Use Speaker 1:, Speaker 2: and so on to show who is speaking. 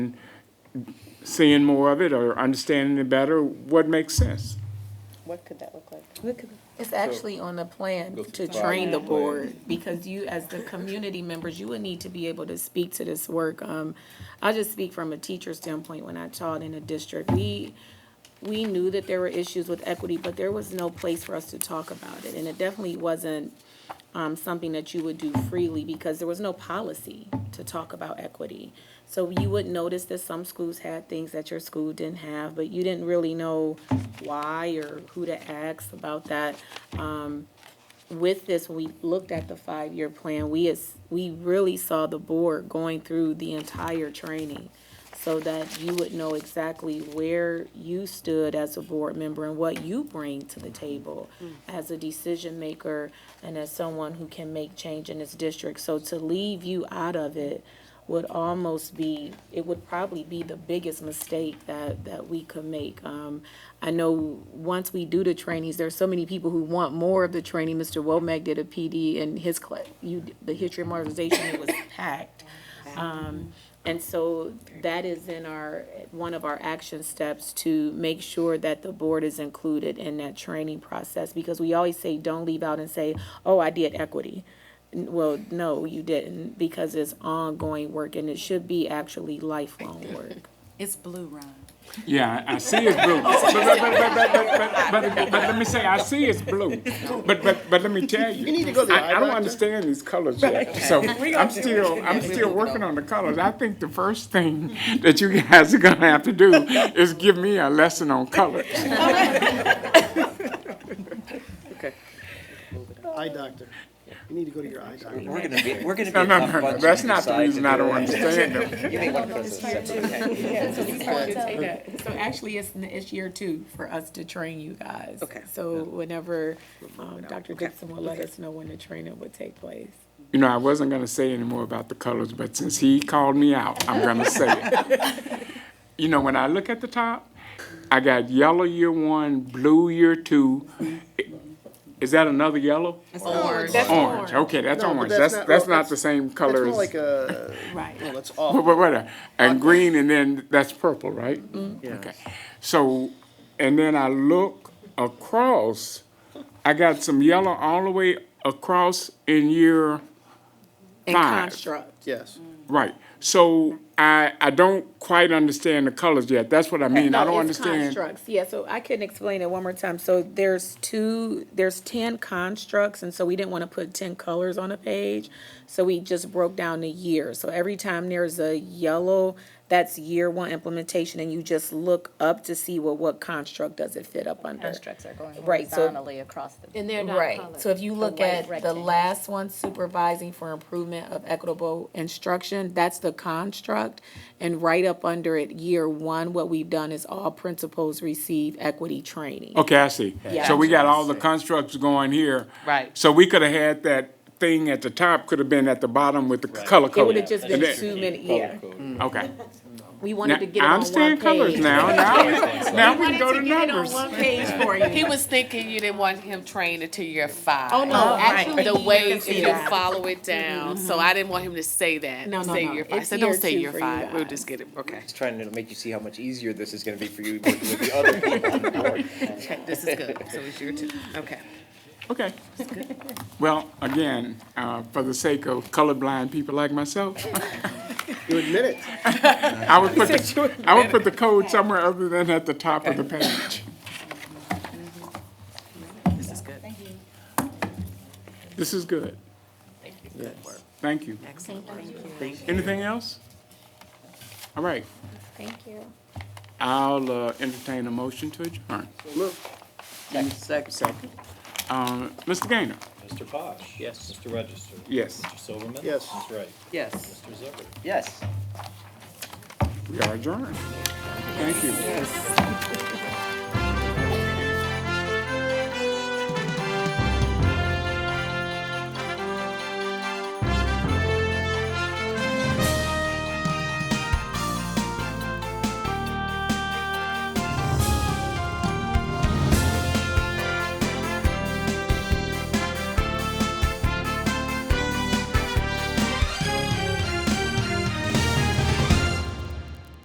Speaker 1: seeing more of it or understanding it better, what makes sense?
Speaker 2: What could that look like?
Speaker 3: It's actually on the plan
Speaker 4: Go
Speaker 3: to
Speaker 4: through five
Speaker 3: train the
Speaker 4: plan.
Speaker 3: board, because you, as the community members, you would need to be able to speak to this work. Um, I just speak from a teacher standpoint, when I taught in the district, we, we knew that there were issues with equity, but there was no place for us to talk about it, and it definitely wasn't um, something that you would do freely because there was no policy to talk about equity. So you would notice that some schools had things that your school didn't have, but you didn't really know why or who to ask about that. Um, with this, when we looked at the five-year plan, we is, we really saw the board going through the entire training so that you would know exactly where you stood as a board member and what you bring to the table as a decision maker and as someone who can make change in this district. So to leave you out of it would almost be, it would probably be the biggest mistake that, that we could make. Um, I know once we do the trainings, there's so many people who want more of the training. Mr. Womack did a PD in his class, you, the history of modernization, it was packed. Um, and so that is in our, one of our action steps to make sure that the board is included in that training process. Because we always say, don't leave out and say, oh, I did equity. N- Well, no, you didn't, because it's ongoing work and it should be actually lifelong work.
Speaker 5: It's blue, Ron.
Speaker 1: Yeah, I I see it's blue. But, but, but, but, but, but, but, but, but let me say, I see it's blue. But, but, but let me tell you.
Speaker 4: You need to go to the
Speaker 1: I, I
Speaker 4: eye
Speaker 1: don't
Speaker 4: doctor.
Speaker 1: understand these colors yet, so I'm still, I'm still working on the colors. I think the first thing that you guys are gonna have to do is give me a lesson on colors.
Speaker 4: Eye doctor. You need to go to your eye doctor.
Speaker 6: We're gonna be, we're gonna be
Speaker 1: No,
Speaker 6: a
Speaker 1: no,
Speaker 6: tough
Speaker 1: no,
Speaker 6: bunch.
Speaker 1: that's
Speaker 6: to
Speaker 1: not the
Speaker 6: decide to
Speaker 1: reason I
Speaker 6: do
Speaker 1: don't
Speaker 6: it.
Speaker 1: understand them.
Speaker 6: You may want to put this separate.
Speaker 3: So actually, it's, it's year two for us to train you guys.
Speaker 2: Okay.
Speaker 3: So whenever, um, Dr. Dixon will let us know when the training would take place.
Speaker 1: You know, I wasn't going to say any more about the colors, but since he called me out, I'm going to say it. You know, when I look at the top, I got yellow year one, blue year two. Is that another yellow?
Speaker 3: Orange.
Speaker 1: Orange. Okay, that's
Speaker 4: No, but
Speaker 1: orange.
Speaker 4: that's
Speaker 1: That's
Speaker 4: not-
Speaker 1: that's
Speaker 4: well,
Speaker 1: not the same
Speaker 4: That's
Speaker 1: color
Speaker 4: more
Speaker 1: as.
Speaker 4: like a,
Speaker 3: Right.
Speaker 4: well, that's
Speaker 1: But,
Speaker 4: off.
Speaker 1: but, wait a- and green, and then that's purple, right?
Speaker 3: Mm-hmm.
Speaker 1: Okay. So, and then I look across, I got some yellow all the way across in year
Speaker 3: And
Speaker 1: Five.
Speaker 3: construct.
Speaker 4: Yes.
Speaker 1: Right. So I, I don't quite understand the colors yet. That's what I mean. I
Speaker 3: No,
Speaker 1: don't
Speaker 3: it's
Speaker 1: understand.
Speaker 3: Constructs, yeah, so I couldn't explain it one more time. So there's two, there's ten constructs, and so we didn't want to put ten colors on a page. So we just broke down the year. So every time there's a yellow, that's year one implementation, and you just look up to see, well, what construct does it fit up under?
Speaker 7: Constructs are going
Speaker 3: Right, so-
Speaker 7: horizontally across the.
Speaker 5: And they're not
Speaker 3: Right,
Speaker 5: colored.
Speaker 3: so if you look
Speaker 7: white
Speaker 3: at the
Speaker 7: rectangles.
Speaker 3: last one, supervising for improvement of equitable instruction, that's the construct. And right up under it, year one, what we've done is all principals receive equity training.
Speaker 1: Okay, I see.
Speaker 3: Yeah.
Speaker 1: So we got all the constructs going here.
Speaker 3: Right.
Speaker 1: So we could have had that thing at the top, could have been at the bottom with the color code.
Speaker 3: It would have just been
Speaker 1: And then-
Speaker 3: too many, yeah.
Speaker 1: Okay.
Speaker 3: We
Speaker 1: Now,
Speaker 3: wanted to get it
Speaker 1: I
Speaker 3: on one page.
Speaker 1: understand colors now. Now, now we can go to numbers.
Speaker 3: page for you.
Speaker 8: He was thinking you didn't want him trained until you're five.
Speaker 3: Oh, no, actually.
Speaker 8: The
Speaker 3: you
Speaker 8: way
Speaker 3: can
Speaker 8: if
Speaker 3: see
Speaker 8: you
Speaker 3: that.
Speaker 8: follow it down, so I didn't want him to say that.
Speaker 3: No, no,
Speaker 8: say
Speaker 3: no.
Speaker 8: you're five.
Speaker 3: It's
Speaker 8: So don't
Speaker 3: year
Speaker 8: say
Speaker 3: two
Speaker 8: you're
Speaker 3: for you
Speaker 8: five. We'll
Speaker 3: guys.
Speaker 8: just get it. Okay,
Speaker 6: Just trying to make you see how much easier this is gonna be for you working with the other people on the board.
Speaker 8: okay, this is good. So it's your two. Okay.
Speaker 1: Okay. Well, again, uh, for the sake of colorblind people like myself,
Speaker 4: You admit it.
Speaker 1: I would put, the- I would put the code somewhere other than at the top of the page.
Speaker 8: Mm-hmm. This is good.
Speaker 1: This is good. Thank you. Excellent. Anything else? All right,
Speaker 3: Thank you.
Speaker 1: I'll uh, entertain a motion to adjourn.
Speaker 6: Second.
Speaker 1: Uh, Mr. Gaynor?
Speaker 9: Mr. Posh. Yes. Mr. Register.
Speaker 1: Yes.
Speaker 9: Mr. Silverman.
Speaker 4: Yes.
Speaker 9: Ms. Wright.
Speaker 6: Yes.
Speaker 9: Mr. Zucker.
Speaker 6: Yes.
Speaker 1: We are adjourned. Thank you.